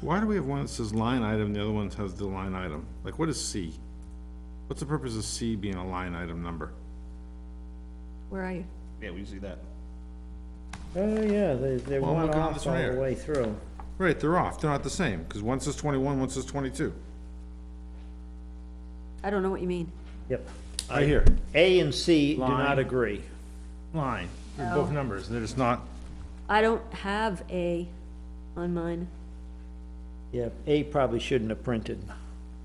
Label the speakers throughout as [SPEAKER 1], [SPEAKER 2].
[SPEAKER 1] Why do we have one that says line item, and the other one has the line item? Like, what is C? What's the purpose of C being a line item number?
[SPEAKER 2] Where are you?
[SPEAKER 3] Yeah, we see that.
[SPEAKER 4] Oh, yeah, they, they're
[SPEAKER 1] Well,
[SPEAKER 4] one
[SPEAKER 1] look at all
[SPEAKER 4] off
[SPEAKER 1] this one
[SPEAKER 4] all the
[SPEAKER 1] here.
[SPEAKER 4] way through.
[SPEAKER 1] Right, they're off, they're not the same, because one says twenty-one, one says twenty-two.
[SPEAKER 2] I don't know what you mean.
[SPEAKER 4] Yep.
[SPEAKER 1] Right here,
[SPEAKER 4] A and C do
[SPEAKER 1] Line.
[SPEAKER 4] not agree.
[SPEAKER 1] line, they're both numbers, they're just not,
[SPEAKER 2] I don't have A on mine.
[SPEAKER 4] Yeah, A probably shouldn't have printed.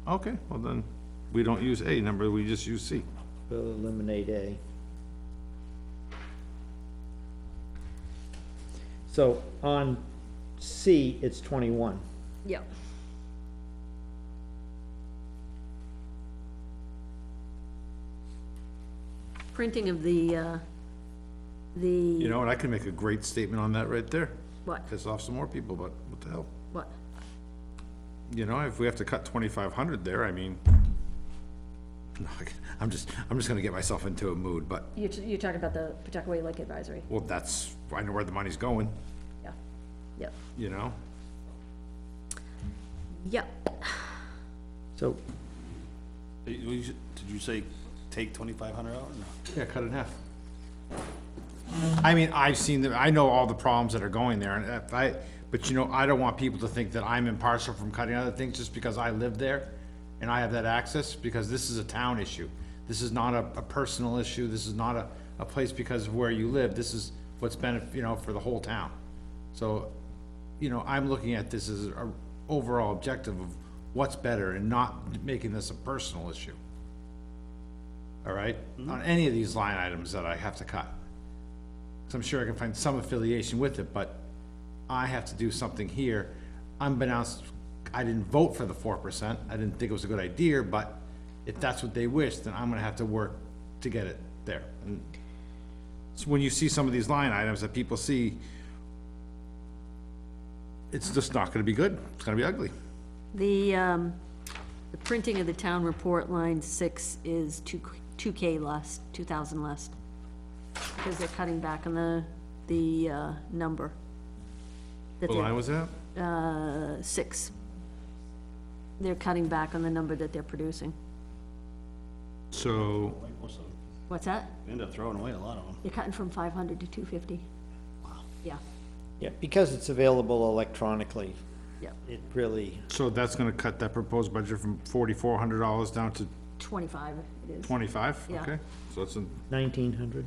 [SPEAKER 1] okay, well then, we don't use A number, we just use C.
[SPEAKER 4] We'll eliminate A. So on C, it's twenty-one.
[SPEAKER 2] Yep. Printing of the, uh,
[SPEAKER 1] You
[SPEAKER 2] the,
[SPEAKER 1] know, and I could make a great statement on that right there,
[SPEAKER 2] what,
[SPEAKER 1] piss off some more people, but what the hell?
[SPEAKER 2] what?
[SPEAKER 1] You know, if we have to cut twenty-five hundred there, I mean, No, I can- I'm just, I'm just gonna get myself into a mood, but,
[SPEAKER 2] You're, t- you're talking about the Pawtuckaway Lake Advisory?
[SPEAKER 1] well, that's, I know where the money's going,
[SPEAKER 2] Yeah. Yep.
[SPEAKER 1] you know?
[SPEAKER 2] Yep.
[SPEAKER 4] So
[SPEAKER 3] Did you- did you say take twenty-five hundred out? No.
[SPEAKER 1] Yeah, cut it in half. I mean, I've seen, the- I know all the problems that are going there, and if I, but you know, I don't want people to think that I'm impartial from cutting other things just because I live there and I have that access, because this is a town issue. This is not a, a personal issue, this is not a, a place because of where you live, this is what's been, you know, for the whole town. So, you know, I'm looking at this as a overall objective of what's better and not making this a personal issue all right, on any of these line items that I have to cut. So I'm sure I can find some affiliation with it, but I have to do something here. Unbeknownst, I didn't vote for the four percent, I didn't think it was a good idea, but if that's what they wish, then I'm gonna have to work to get it there. And So when you see some of these line items that people see, it's just not gonna be good, it's gonna be ugly.
[SPEAKER 2] The, um, the printing of the town report, line six, is two, two K less, two thousand less. Because they're cutting back on the, the, uh, number. That
[SPEAKER 1] What line
[SPEAKER 2] they're,
[SPEAKER 1] was that?
[SPEAKER 2] uh, six. They're cutting back on the number that they're producing.
[SPEAKER 1] So,
[SPEAKER 2] What's that?
[SPEAKER 3] We end up throwing away a lot of them.
[SPEAKER 2] They're cutting from five hundred to two fifty. Yeah,
[SPEAKER 4] Yeah, because it's available electronically,
[SPEAKER 2] yeah,
[SPEAKER 4] it really,
[SPEAKER 1] so that's gonna cut that proposed budget from forty-four hundred dollars down to
[SPEAKER 2] twenty-five it is.
[SPEAKER 1] Twenty-five,
[SPEAKER 2] Yeah.
[SPEAKER 1] okay, so that's a,
[SPEAKER 4] nineteen hundred?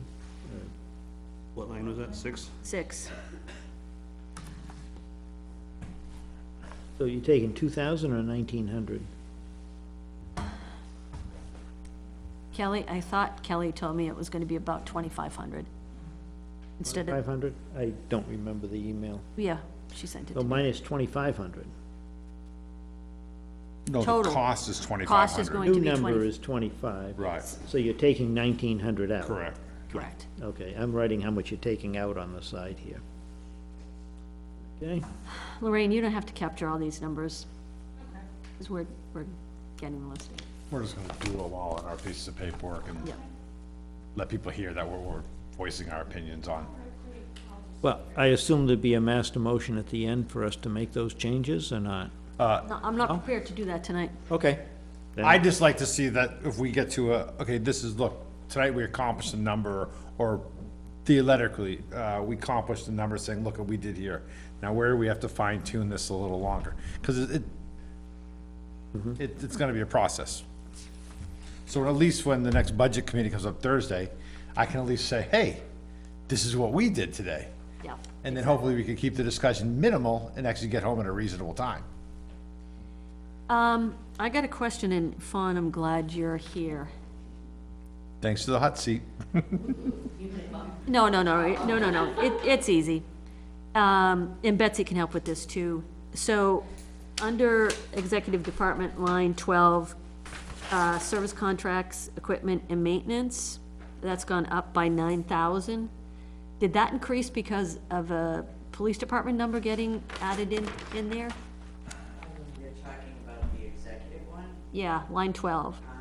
[SPEAKER 3] What line was that, six?
[SPEAKER 2] Six,
[SPEAKER 4] So you're taking two thousand or nineteen hundred?
[SPEAKER 2] Kelly, I thought Kelly told me it was gonna be about twenty-five hundred. Instead
[SPEAKER 4] Five
[SPEAKER 2] of,
[SPEAKER 4] hundred? I don't remember the email.
[SPEAKER 2] yeah, she sent it to
[SPEAKER 4] So
[SPEAKER 2] me.
[SPEAKER 4] mine is Oh, twenty-five hundred.
[SPEAKER 1] no, the
[SPEAKER 2] Total.
[SPEAKER 1] cost is twenty-five
[SPEAKER 2] Cost is going-
[SPEAKER 1] hundred.
[SPEAKER 2] to
[SPEAKER 4] New
[SPEAKER 2] be
[SPEAKER 4] number
[SPEAKER 2] 20.
[SPEAKER 4] is twenty-five.
[SPEAKER 1] Right,
[SPEAKER 4] So you're taking nineteen hundred out?
[SPEAKER 1] correct.
[SPEAKER 2] Correct.
[SPEAKER 4] Okay, I'm writing how much you're taking out on the side here. Okay,
[SPEAKER 2] Lorraine, you don't have to capture all these numbers. Because we're, we're getting listed.
[SPEAKER 1] We're just gonna do them all on our pieces of paperwork and
[SPEAKER 2] Yeah.
[SPEAKER 1] let people hear that we're, we're voicing our opinions on.
[SPEAKER 4] well, I assume there'd be a master motion at the end for us to make those changes or not?
[SPEAKER 2] No, I'm not prepared to do that tonight.
[SPEAKER 4] Okay. Then-
[SPEAKER 1] I'd just like to see that if we get to a, okay, this is, look, tonight we accomplished a number, or theoretically, uh, we accomplished a number saying, look what we did here. Now where do we have to fine tune this a little longer? Cause it, it- it, it's gonna be a process. So at least when the next budget committee comes up Thursday, I can at least say, hey, this is what we did today.
[SPEAKER 2] Yeah.
[SPEAKER 1] And then hopefully we can keep the discussion minimal and actually get home at a reasonable time.
[SPEAKER 2] Um, I got a question, and Fawn, I'm glad you're here.
[SPEAKER 1] Thanks to the hot seat.
[SPEAKER 2] No, no, no, it- no, no, no, it, it's easy. Um, and Betsy can help with this too. So, under Executive Department, line twelve, uh, service contracts, equipment and maintenance, that's gone up by nine thousand. Did that increase because of a police department number getting added in, in there?
[SPEAKER 5] You're talking about the executive one?
[SPEAKER 2] Yeah, line twelve.
[SPEAKER 5] Um,